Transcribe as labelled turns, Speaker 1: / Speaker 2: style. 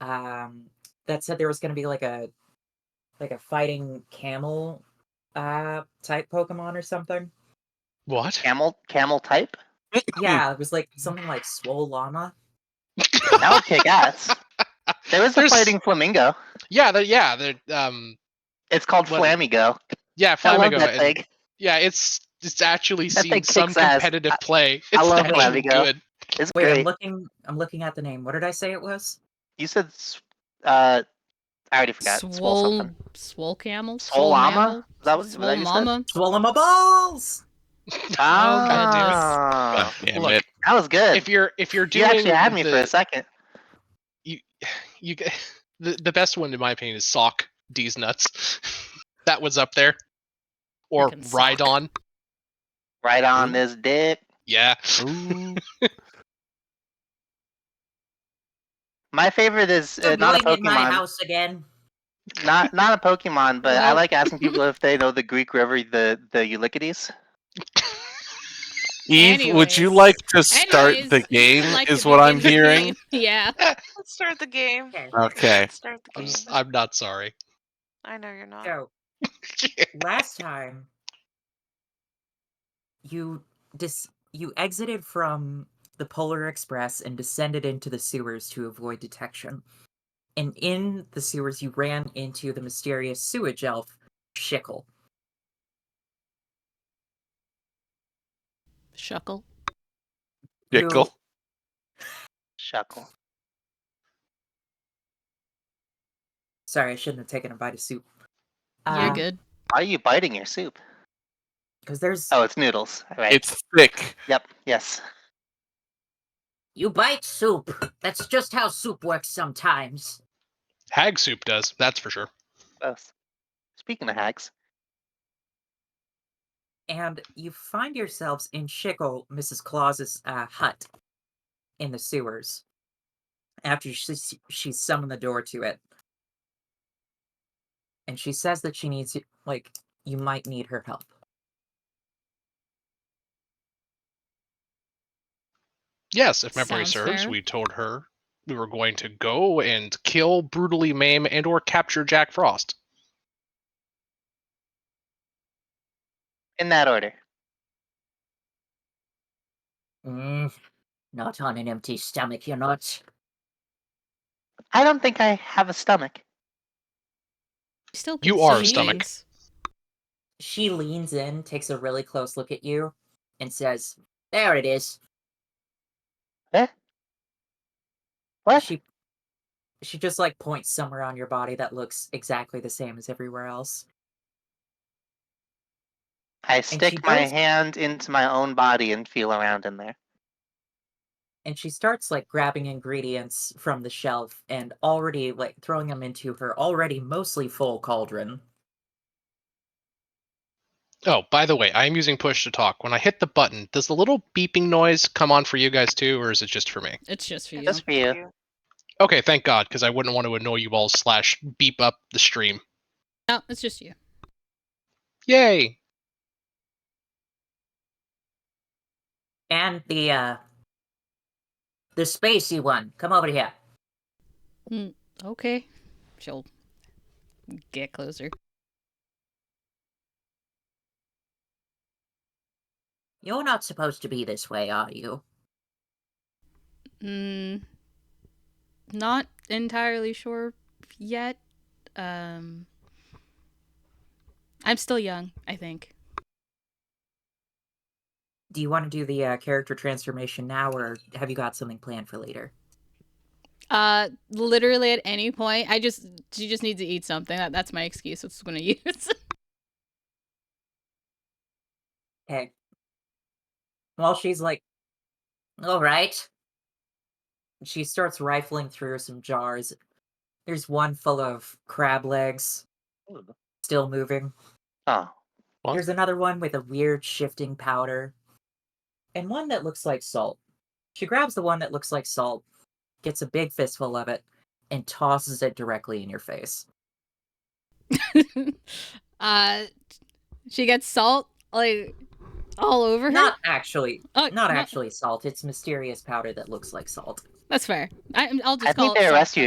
Speaker 1: um that said there was going to be like a like a fighting camel uh type pokemon or something
Speaker 2: What?
Speaker 3: Camel camel type?
Speaker 1: yeah it was like something like swole llama
Speaker 3: That would kick ass. There is a
Speaker 2: There's-
Speaker 3: fighting flamingo.
Speaker 2: Yeah, the, yeah, the um,
Speaker 3: It's called
Speaker 2: What-
Speaker 3: Flamigo.
Speaker 2: yeah,
Speaker 3: I love
Speaker 2: Flamigo.
Speaker 3: that
Speaker 2: and-
Speaker 3: thing.
Speaker 2: Yeah, it's it's actually
Speaker 3: That
Speaker 2: seen
Speaker 3: thing
Speaker 2: some
Speaker 3: kicks ass.
Speaker 2: competitive play. It's
Speaker 3: I love
Speaker 2: actually
Speaker 3: Flamigo.
Speaker 2: good.
Speaker 3: It's
Speaker 1: wait i'm
Speaker 3: great.
Speaker 1: looking i'm looking at the name what did i say it was
Speaker 3: you said, s- uh, I already forgot. Swole,
Speaker 4: Swole,
Speaker 3: something.
Speaker 4: swole camel,
Speaker 3: Swole llama? Is that what,
Speaker 4: mammal,
Speaker 3: was
Speaker 4: swole
Speaker 3: that you said?
Speaker 4: mama.
Speaker 1: swallow my balls
Speaker 2: God
Speaker 3: Ah,
Speaker 5: Damn
Speaker 2: Look,
Speaker 5: it.
Speaker 3: that was good.
Speaker 2: If you're if you're
Speaker 3: you
Speaker 2: doing
Speaker 3: actually had me
Speaker 2: the,
Speaker 3: for a second.
Speaker 2: you, you g- the, the best one in my opinion is sock D's nuts. that was up there. Or
Speaker 4: Fucking Sock.
Speaker 2: Rhydon.
Speaker 3: Right
Speaker 2: Mm.
Speaker 3: on this dick.
Speaker 2: Yeah.
Speaker 5: Ooh.
Speaker 3: My favorite is uh,
Speaker 1: Stop
Speaker 3: not a
Speaker 1: going in my
Speaker 3: Pokemon.
Speaker 1: house again
Speaker 3: Not not a Pokemon, but I
Speaker 4: Well-
Speaker 3: like asking people if they know the Greek river, the the Eulipides.
Speaker 5: Eve, would you
Speaker 4: Anyways.
Speaker 5: like to start the
Speaker 4: Anyways,
Speaker 5: game?
Speaker 4: Like
Speaker 5: is
Speaker 4: to
Speaker 5: what I'm
Speaker 4: begin the
Speaker 5: hearing.
Speaker 4: game. Yeah.
Speaker 6: Let's start the game.
Speaker 1: okay
Speaker 5: Okay.
Speaker 6: Start the
Speaker 2: I'm,
Speaker 6: game.
Speaker 2: s- I'm not sorry.
Speaker 6: I know you're not.
Speaker 1: so last time you dis- you exited from the polar express and descended into the sewers to avoid detection and in the sewers you ran into the mysterious sewage elf shickle
Speaker 4: Shuckle.
Speaker 5: Pickle.
Speaker 3: Shuckle.
Speaker 1: sorry i shouldn't have taken a bite of soup Uh,
Speaker 4: You're good.
Speaker 3: Why are you biting your soup?
Speaker 1: because there's
Speaker 3: Oh, it's noodles. All right.
Speaker 5: It's thick.
Speaker 3: Yep. Yes.
Speaker 1: you bite soup that's just how soup works sometimes
Speaker 2: Hag soup does, that's for sure.
Speaker 3: Both. Oh, Speaking of hacks,
Speaker 1: and you find yourselves in Shickle, Mrs. Claus's uh, hut in the sewers after she, s- she summoned the door to it. And she says that she needs, y- like, you might need her help.
Speaker 2: Yes, if memory
Speaker 4: Sounds
Speaker 2: serves,
Speaker 4: fair.
Speaker 2: we told her we were going to go and kill, brutally maim, and or capture Jack Frost.
Speaker 3: in that order.
Speaker 1: Mm, not on an empty stomach, you're not.
Speaker 3: I don't think I have a stomach.
Speaker 4: You still
Speaker 2: You
Speaker 4: can
Speaker 2: are
Speaker 4: see
Speaker 2: a stomach.
Speaker 4: these.
Speaker 1: She leans in, takes a really close look at you, and says, There it is.
Speaker 3: What?
Speaker 1: She she just like points somewhere on your body that looks exactly the same as everywhere else.
Speaker 3: I
Speaker 1: she
Speaker 3: stick my
Speaker 1: goes-
Speaker 3: hand into my own body and feel around in there.
Speaker 1: and she starts like grabbing ingredients from the shelf and already like throwing them into her already mostly full cauldron.
Speaker 2: Oh, by the way, I am using push to talk. When I hit the button, does the little beeping noise come on for you guys too, or is it just for me?
Speaker 4: It's just for you.
Speaker 3: Just for you.
Speaker 2: Okay, thank God, because I wouldn't want to annoy you all slash beep up the stream.
Speaker 4: No, it's just you.
Speaker 2: Yay!
Speaker 1: And the uh the spacey one, come over here.
Speaker 4: Okay. She'll get closer.
Speaker 1: You're not supposed to be this way, are you?
Speaker 4: Mm, not entirely sure yet. Um, I'm still young, I think.
Speaker 1: Do you want to do the uh, character transformation now, or have you got something planned for later?
Speaker 4: Uh, literally at any point, I just she just needs to eat something. That, that's my excuse. That's what I'm gonna use.
Speaker 1: Okay. While she's like, all right. She starts rifling through some jars. There's one full of crab legs, still moving.
Speaker 3: Oh,
Speaker 5: What?
Speaker 1: There's another one with a weird shifting powder. And one that looks like salt. She grabs the one that looks like salt, gets a big fistful of it, and tosses it directly in your face.
Speaker 4: uh, she gets salt like all over her.
Speaker 1: Not actually,
Speaker 4: Oh,
Speaker 1: not
Speaker 4: no,
Speaker 1: actually salt. It's mysterious powder that looks like salt.
Speaker 4: That's fair. I, I'll just.
Speaker 3: I
Speaker 4: call
Speaker 3: think
Speaker 4: it
Speaker 3: they
Speaker 4: salt
Speaker 3: arrest you